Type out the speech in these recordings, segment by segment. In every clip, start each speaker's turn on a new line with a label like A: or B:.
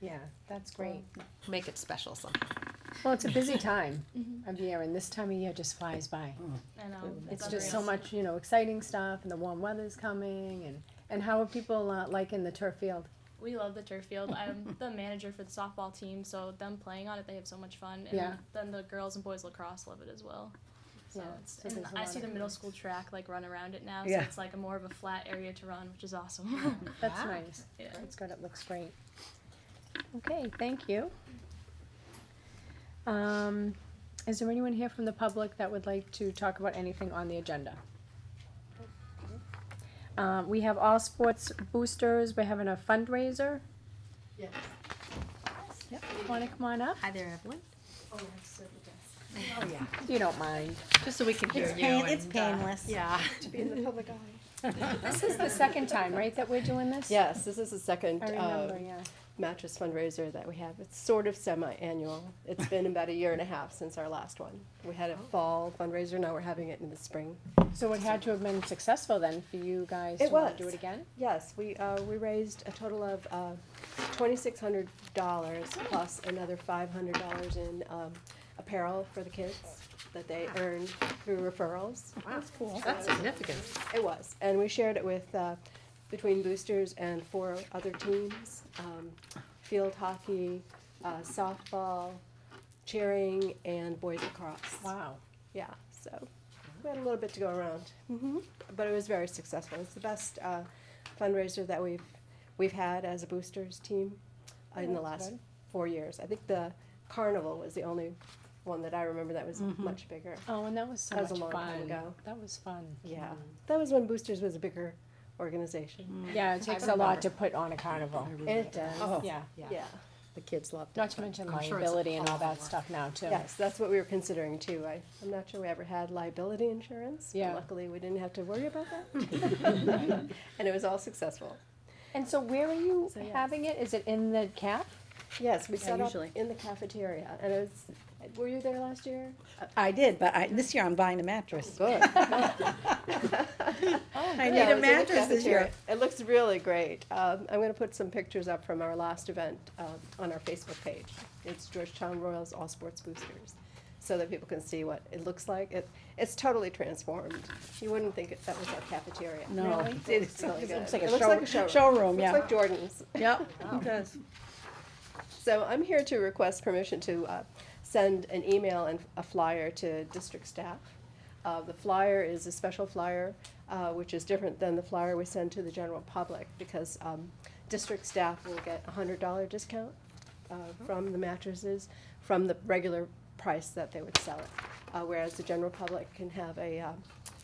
A: Yeah, that's great.
B: Make it special somehow.
A: Well, it's a busy time of year, and this time of year just flies by.
C: I know.
A: It's just so much, you know, exciting stuff, and the warm weather's coming, and, and how are people uh, liking the turf field?
C: We love the turf field. I'm the manager for the softball team, so them playing on it, they have so much fun. And
A: Yeah.
C: then the girls and boys lacrosse love it as well. So
A: Yeah,
C: it's,
A: so
C: and
A: there's a
C: I
A: lot
C: see
A: of
C: the middle school track like run around it now, so
D: Yeah.
C: it's like a more of a flat area to run, which is awesome.
A: That's
B: Wow.
A: nice.
C: yeah.
A: That's good, it looks great. Okay, thank you. Um, is there anyone here from the public that would like to talk about anything on the agenda? Um, we have all sports boosters, we're having a fundraiser.
E: Yes.
A: Yep, wanna come on up?
B: Hi there, Evelyn.
E: Oh, I have to sit at the desk.
D: Oh, yeah.
A: You don't mind.
B: Just so we can hear
D: It's
B: you.
D: pain, it's
B: and, uh,
D: painless.
B: Yeah.
A: This is the second time, right, that we're doing this?
F: Yes, this is the second
A: I
F: uh,
A: remember, yeah.
F: mattress fundraiser that we have. It's sort of semi-annual. It's been about a year and a half since our last one. We had a
A: Oh.
F: fall fundraiser, now we're having it in the spring.
A: So it had to have been successful then for you guys to
F: It
A: wanna do
F: was.
A: it again?
F: Yes, we, uh, we raised a total of uh, $2,600 plus another $500 in um, apparel for the kids that they earned through referrals.
D: That's cool.
B: That's significant.
F: It was, and we shared it with, uh, between boosters and four other teams, um, field hockey, uh, softball, cheering, and boys lacrosse.
A: Wow.
F: Yeah, so we had a little bit to go around.
A: Mm-hmm.
F: hmm But it was very successful. It's the best uh, fundraiser that we've we've had as a boosters team uh, in the
A: Oh, That's
F: last
A: good.
F: four years. I think the carnival was the only one that I remember that was much bigger.
A: Oh, and that was so
F: That was a
A: much
F: long time
A: fun.
F: ago.
A: That was fun.
F: Yeah,
A: Mm-hmm.
F: that was when boosters was a bigger organization.
A: Yeah, it takes a lot to put on a carnival.
F: It does.
D: Oh,
A: Yeah,
F: Yeah.
D: the kids loved it.
A: not to mention
D: I'm sure it's
A: liability and all
D: awful
A: that
D: work.
A: stuff now too.
F: Yes, that's what we were considering too. I, I'm not sure we ever had liability insurance. but
A: Yeah.
F: Luckily, we didn't have to worry about that. And it was all successful.
A: And so where are you
F: So, yes.
A: having it? Is it in the cap?
F: Yes, we
D: Yeah,
F: set up
D: usually.
F: in the cafeteria and it was, were you there last year?
D: I did, but I, this year I'm buying a mattress.
F: Oh, Good.
A: Oh,
D: I
F: Yeah,
D: need
F: it
D: a
F: was in the
D: mattress this year.
F: cafeteria. It looks really great. Um, I'm gonna put some pictures up from our last event, um, on our Facebook page. It's Georgetown Royals All Sports Boosters, so that people can see what it looks like. It, it's totally transformed. You wouldn't think it- that was our cafeteria.
D: No,
F: Really?
D: it- it's,
F: It's really
D: it looks
F: good.
D: like a
F: It looks like a
D: show,
F: showroom.
D: showroom,
F: Looks
D: yeah.
F: like Jordan's.
D: Yep, it does.
F: So I'm here to request permission to uh, send an email and a flyer to district staff. Uh, The flyer is a special flyer, uh, which is different than the flyer we send to the general public because um, district staff will get a hundred dollar discount uh,
D: Uh-huh.
F: from the mattresses, from the regular price that they would sell it. Uh, Whereas the general public can have a, uh,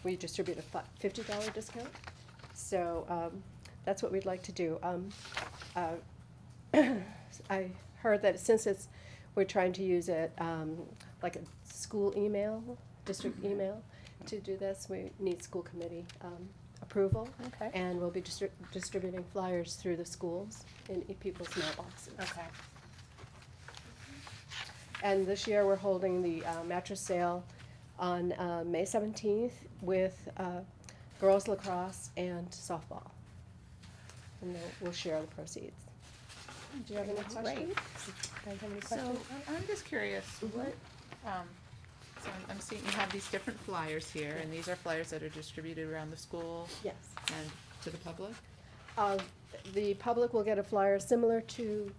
F: we distribute a fi- fifty dollar discount. So um, that's what we'd like to do. Um, uh, I heard that since it's, we're trying to use it, um, like a school email, district email, to do this, we need school committee, um, approval,
A: Okay.
F: and we'll be distri- distributing flyers through the schools in e- people's mailboxes.
A: Okay.
F: And this year, we're holding the uh, mattress sale on, uh, May seventeenth with, uh, girls lacrosse and softball. And then we'll share the proceeds. Do you have any
A: That's great.
F: questions?
A: Guys have any
G: So,
A: questions?
G: I'm- I'm just curious,
F: Mm-hmm.
G: what, um, so I'm- I'm seeing you have these different flyers here, and these are flyers that are distributed around the school
F: Yes.
G: and to the public?
F: Uh, The public will get a flyer similar to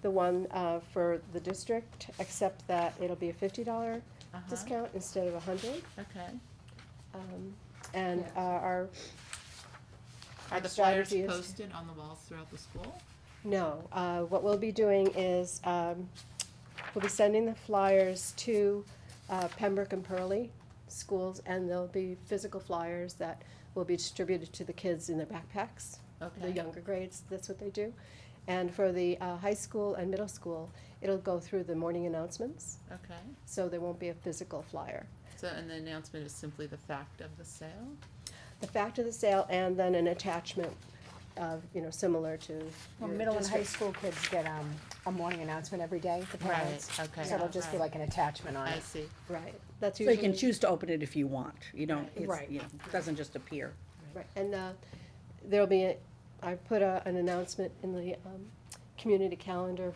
F: the one uh, for the district, except that it'll be a fifty dollar
G: Uh-huh.
F: discount instead of a hundred.
G: Okay.
F: And uh, our,
G: Are the flyers
F: strategy is-
G: posted on the walls throughout the school?
F: no, uh, what we'll be doing is, um, we'll be sending the flyers to uh, Pembroke and Pearlie schools, and there'll be physical flyers that will be distributed to the kids in their backpacks. the
G: Okay.
F: younger grades, that's what they do. And for the uh, high school and middle school, it'll go through the morning announcements,
G: Okay,
F: so there won't be a physical flyer.
G: so, and the announcement is simply the fact of the sale?
F: The fact of the sale and then an attachment of, you know, similar to.
A: Well,
F: your
A: middle and high
F: district.
A: school kids get, um, a morning announcement every day, the
G: Right,
A: parents.
G: okay.
A: So it'll just be
G: Right.
A: like an attachment on
G: I
A: it.
G: see.
F: Right, that's
D: So
F: usually.
D: you can choose to open it if you want, you don't, it's,
A: Right.
D: you know, it doesn't just appear.
F: Right, and uh, there'll be, a- I put a- an announcement in the um, community calendar